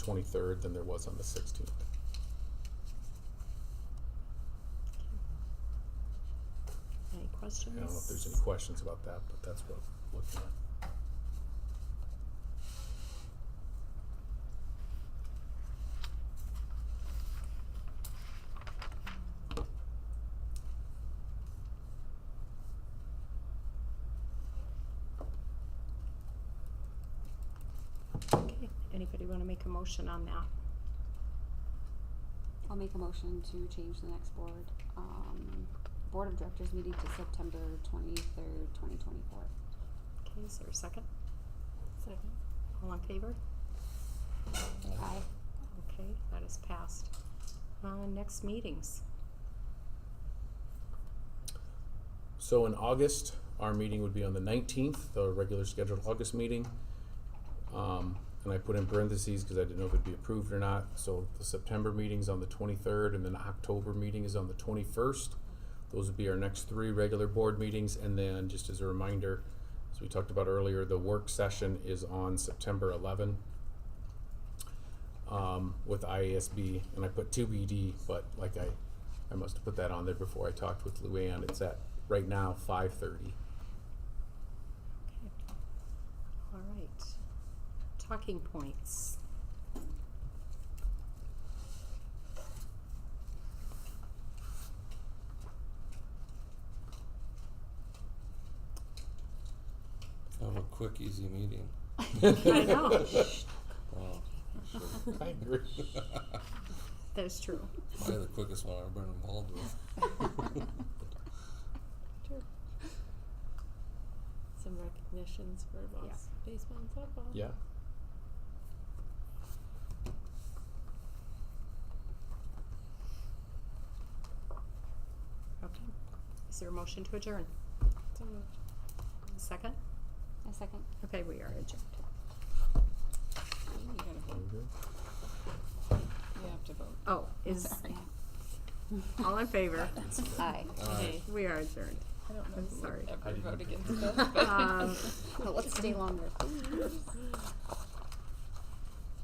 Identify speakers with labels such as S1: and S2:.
S1: twenty-third than there was on the sixteenth.
S2: Any questions?
S1: I don't know if there's any questions about that, but that's what I'm looking at.
S2: Okay, Anybody wanna make a motion on that?
S3: I'll make a motion to change the next board, um, board of directors meeting to September twenty-third, twenty twenty-four.
S2: Okay, is there a second? Second. All in favor?
S3: Aye.
S2: Okay, that is passed. Uh, next meetings,
S1: So in August, our meeting would be on the nineteenth, the regular scheduled August meeting. Um, and I put in parentheses because I didn't know if it'd be approved or not, so the September meeting's on the twenty-third and then October meeting is on the twenty-first. Those would be our next three regular board meetings, and then just as a reminder, as we talked about earlier, the work session is on September eleven. um, with IASB, and I put two BD, but like I, I must have put that on there before I talked with Luann. It's at right now five thirty.
S2: okay. All right, talking points.
S4: Have a quick, easy meeting.
S2: I know.
S4: Wow.
S1: I agree.
S2: That's true.
S4: Probably the quickest one I've been involved with.
S5: some recognitions for Voss baseball and softball.
S1: Yeah.
S2: Okay, is there a motion to adjourn?
S5: So moved.
S2: Second?
S3: A second.
S2: Okay, we are adjourned.
S5: You gotta vote. You have to vote.
S2: Oh, is,
S3: Sorry.
S2: all in favor?
S3: Aye.
S4: Alright.
S2: We are adjourned.
S5: I don't know
S2: I'm
S5: who would
S2: sorry.
S5: ever
S1: I didn't
S5: vote
S1: vote.
S5: against that. but-
S2: Um,
S3: Well, let's stay longer, please.